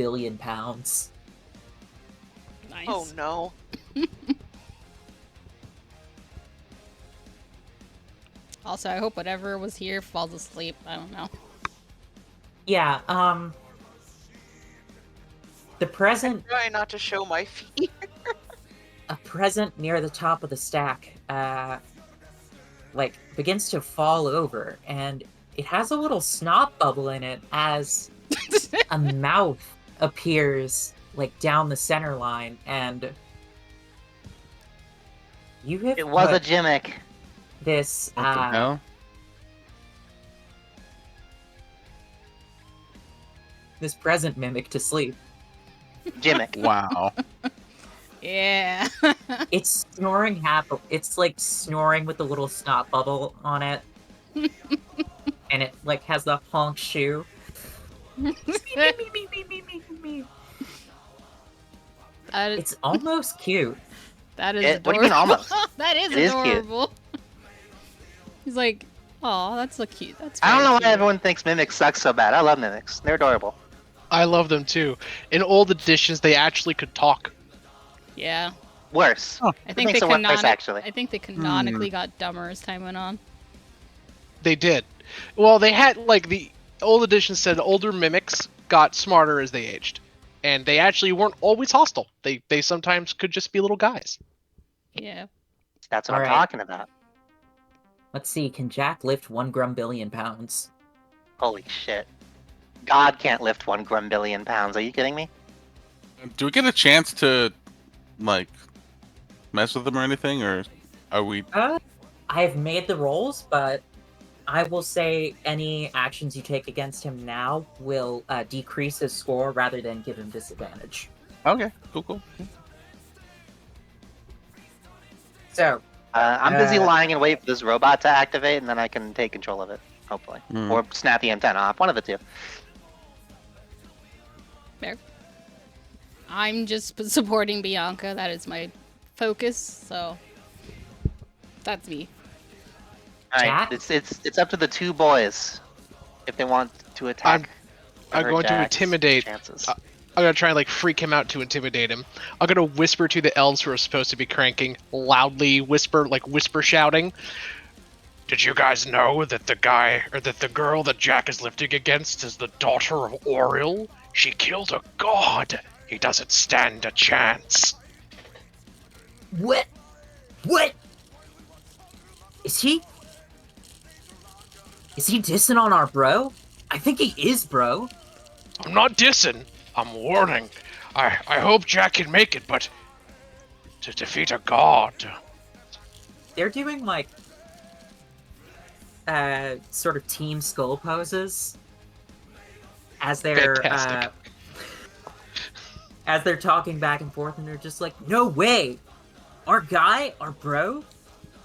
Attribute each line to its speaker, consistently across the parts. Speaker 1: billion pounds.
Speaker 2: Nice.
Speaker 3: Oh no.
Speaker 2: Also, I hope whatever was here falls asleep. I don't know.
Speaker 1: Yeah, um. The present
Speaker 3: Try not to show my feet.
Speaker 1: a present near the top of the stack uh, like begins to fall over and it has a little snot bubble in it as a mouth appears like down the center line and you have
Speaker 4: It was a
Speaker 1: put
Speaker 4: gimmick.
Speaker 1: this
Speaker 4: What the
Speaker 1: uh,
Speaker 4: hell?
Speaker 1: this present mimic to sleep
Speaker 4: Gimmick.
Speaker 5: Wow.
Speaker 2: yeah.
Speaker 1: it's snoring hap- it's like snoring with the little snot bubble on it and it like has the honk shoe
Speaker 2: that is,
Speaker 1: it's almost cute
Speaker 2: that is
Speaker 4: It- what do you mean
Speaker 2: adorable.
Speaker 4: almost?
Speaker 2: that is
Speaker 4: It is cute.
Speaker 2: adorable. He's like, oh, that's so cute. That's.
Speaker 4: I don't know
Speaker 2: very
Speaker 4: why
Speaker 2: cute."
Speaker 4: everyone thinks mimics suck so bad. I love mimics. They're adorable.
Speaker 5: I love them too. In old editions, they actually could talk.
Speaker 2: Yeah,
Speaker 4: Worse.
Speaker 2: I
Speaker 4: It
Speaker 2: think they
Speaker 4: makes it worse,
Speaker 2: canonic-
Speaker 4: actually.
Speaker 2: I think they
Speaker 1: Hmm.
Speaker 2: canonically got dumber as time went on.
Speaker 5: They did. Well, they had like the old edition said older mimics got smarter as they aged, and they actually weren't always hostile. They they sometimes could just be little guys.
Speaker 2: Yeah.
Speaker 4: That's what I'm
Speaker 1: Alright.
Speaker 4: talking about.
Speaker 1: let's see can jack lift one grumbillion pounds
Speaker 4: Holy shit. God can't lift one grumbillion pounds. Are you kidding me?
Speaker 6: Do we get a chance to, like, mess with them or anything, or are we?
Speaker 1: uh, i have made the rolls but i will say any actions you take against him now will uh, decrease his score rather than give him disadvantage
Speaker 6: Okay, cool, cool.
Speaker 1: so
Speaker 4: Uh, I'm busy
Speaker 1: Uh.
Speaker 4: lying in wait for this robot to activate, and then I can take control of it, hopefully,
Speaker 6: Hmm.
Speaker 4: or snap the antenna off. One of the two.
Speaker 2: I'm just p- supporting Bianca. That is my focus. So that's me.
Speaker 4: All right,
Speaker 1: Jack?
Speaker 4: it's it's it's up to the two boys if they want to attack.
Speaker 5: I'm
Speaker 4: her
Speaker 5: going to
Speaker 4: Jack's
Speaker 5: intimidate-
Speaker 4: Chances.
Speaker 5: uh, I'm gonna try and like freak him out to intimidate him. I'm gonna whisper to the elves who are supposed to be cranking loudly, whisper like whisper shouting. Did you guys know that the guy or that the girl that Jack is lifting against is the daughter of Oriel? She killed a god. He doesn't stand a chance.
Speaker 1: what what is he is he dissing on our bro i think he is bro
Speaker 5: I'm not dissing. I'm warning. I I hope Jack can make it, but to defeat a god.
Speaker 1: they're doing like uh sort of team skull poses as they're uh,
Speaker 5: Fantastic.
Speaker 1: as they're talking back and forth and they're just like no way our guy our bro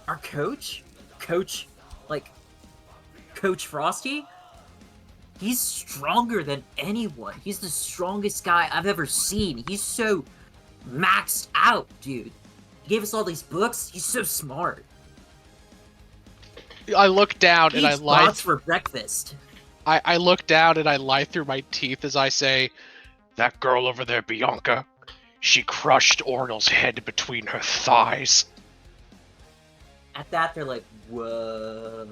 Speaker 1: our coach coach like coach frosty he's stronger than anyone he's the strongest guy i've ever seen he's so maxed out dude he gave us all these books he's so smart
Speaker 5: I look down
Speaker 1: He
Speaker 5: and I
Speaker 1: eats
Speaker 5: lie
Speaker 1: lots for breakfast.
Speaker 5: I, I look down and I lie through my teeth as I say, That girl over there, Bianca, she crushed Ornal's head between her thighs.
Speaker 1: At that, they're like, "Whoa,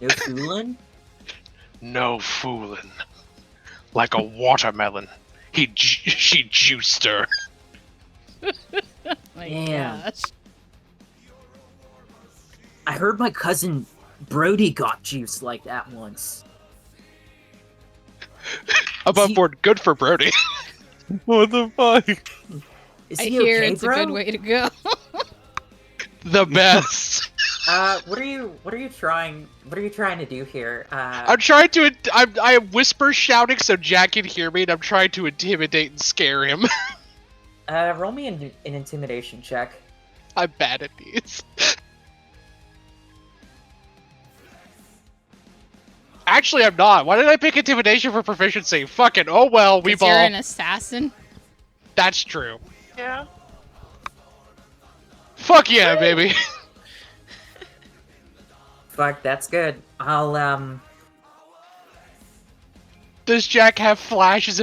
Speaker 1: no fooling."
Speaker 5: No fooling. Like a watermelon. He ju- she juiced her.
Speaker 2: My
Speaker 1: Damn.
Speaker 2: gosh.
Speaker 1: I heard my cousin Brody got juiced like that once.
Speaker 5: Above
Speaker 1: He-
Speaker 5: board, good for Brody.
Speaker 6: What the fuck?
Speaker 1: Is
Speaker 2: I
Speaker 1: he
Speaker 2: hear
Speaker 1: okay,
Speaker 2: it's
Speaker 1: bro?
Speaker 2: a good way to go.
Speaker 5: the best.
Speaker 1: Uh, what are you? What are you trying? What are you trying to do here? Uh,
Speaker 5: I'm trying to. I'm, I am whisper shouting so Jack can hear me, and I'm trying to intimidate and scare him.
Speaker 1: uh roll me an, an intimidation check.
Speaker 5: I'm bad at these. Actually, I'm not. Why did I pick intimidation for proficiency? Fucking oh well, we
Speaker 2: 'Cause You're
Speaker 5: ball.
Speaker 2: an assassin.
Speaker 5: That's true.
Speaker 3: Yeah.
Speaker 5: Fuck yeah, baby.
Speaker 1: Fuck, that's good. I'll um.
Speaker 5: Does Jack have flashes